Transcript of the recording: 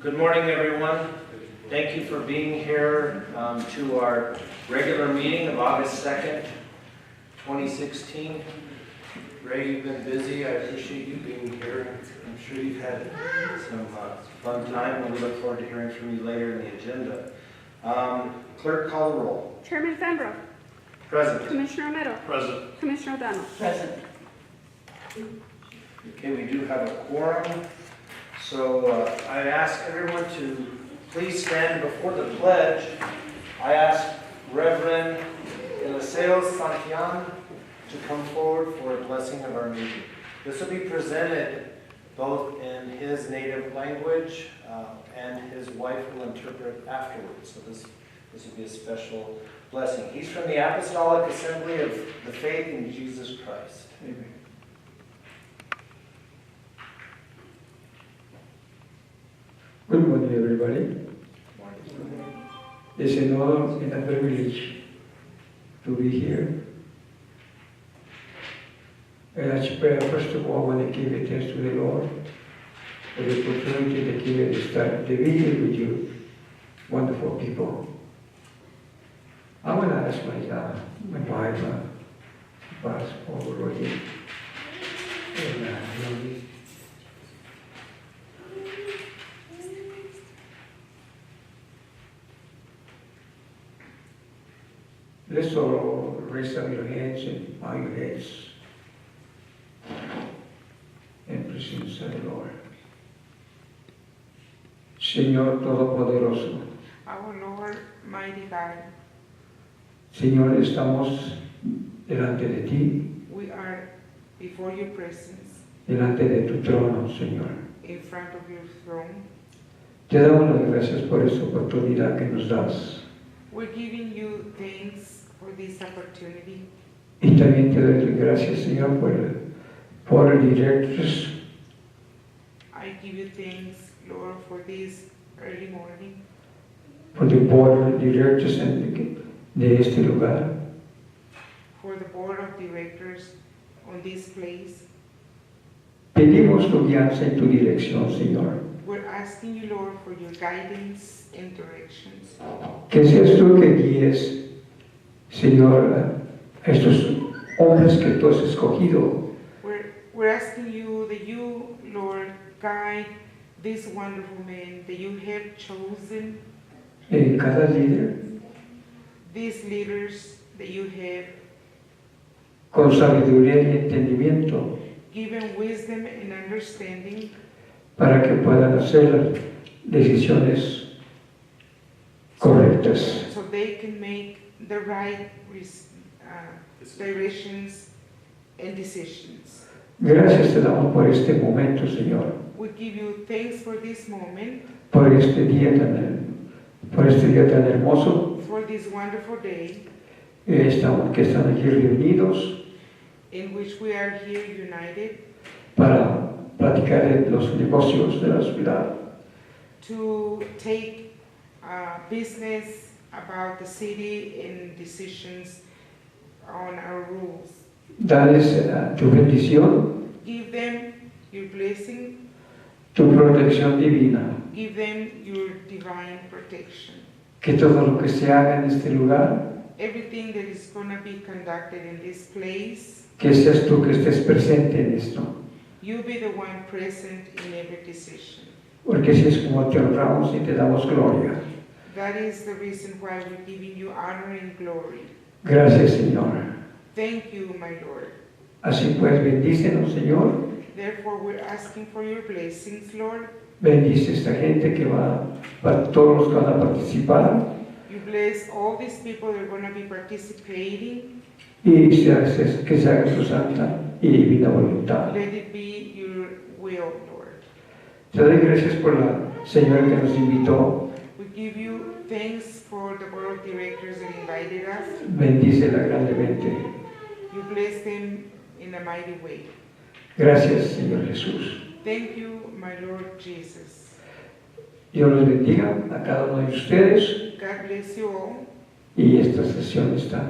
Good morning, everyone. Thank you for being here um, to our regular meeting of August 2nd, 2016. Ray, you've been busy. I appreciate you being here. I'm sure you've had some uh, fun time, and we look forward to hearing from you later in the agenda. Um, Clerk, call the roll. Chairman Fembro, Present. Commissioner Romero, Present. Commissioner O'Donnell. Okay, we do have a quorum, so uh, I ask everyone to please stand before the pledge. I ask Reverend Eliseo Santillan to come forward for a blessing of our meeting. This will be presented both in his native language, uh, and his wife will interpret afterwards. So this, this will be a special blessing. He's from the Apostolic Assembly of the Faith in Jesus Christ. Good morning, everybody. It's an honor and a privilege to be here. And I pray, first of all, when I give it thanks to the Lord for the opportunity to give it this time to be here with you, wonderful people. I want to ask my, uh, my wife, uh, Bas Already, and uh, Rosie, Let's all raise up your hands and bow your heads. And presence of the Lord. Señor Todopoderoso, Our Lord, mighty God, Señor, estamos delante de ti, we are before your presence, delante de tu trono, Señor. in front of your throne. Te damos las gracias por esta oportunidad que nos das. We're giving you thanks for this opportunity. Y también te doy las gracias, Señor, por el board of directors I give you thanks, Lord, for this early morning, por the board of directors en- de este lugar. for the board of directors on this place. Pedimos tu guianza y tu dirección, Señor. We're asking you, Lord, for your guidance and directions. Que seas tú que guíes, Señor, a estos hombres que tú has escogido We're, we're asking you that you, Lord, guide this wonderful man that you have chosen, en cada líder these leaders that you have con sabiduría y entendimiento given wisdom and understanding para que puedan hacer las decisiones correctas. so they can make the right res- uh, directions and decisions. Gracias te damos por este momento, Señor, We give you thanks for this moment, por este día tan, her- por este día tan hermoso for this wonderful day eh, estamos- que están aquí reunidos in which we are here united para platicar de los negocios de la ciudad. to take uh, business about the city and decisions on our rules. Dales eh, tu bendición, Give them your blessing, tu protección divina. give them your divine protection. Que todo lo que se haga en este lugar, Everything that is going to be conducted in this place, que seas tú que estés presente en esto. you be the one present in every decision. Porque así es como te honramos y te damos gloria. That is the reason why we're giving you honor and glory. Gracias, Señor. Thank you, my Lord. Así pues, bendícenos, Señor. Therefore, we're asking for your blessings, Lord. Bendice esta gente que va, para todos los que van a participar. You bless all these people that are going to be participating. Y se hace- que se haga tu santa y divina voluntad. Let it be your will, Lord. Te doy gracias por la señora que nos invitó. We give you thanks for the board of directors that invited us. Bendícela grandemente. You bless them in a mighty way. Gracias, Señor Jesús. Thank you, my Lord Jesus. Dios los bendiga a cada uno de ustedes God bless you all. y esta sesión está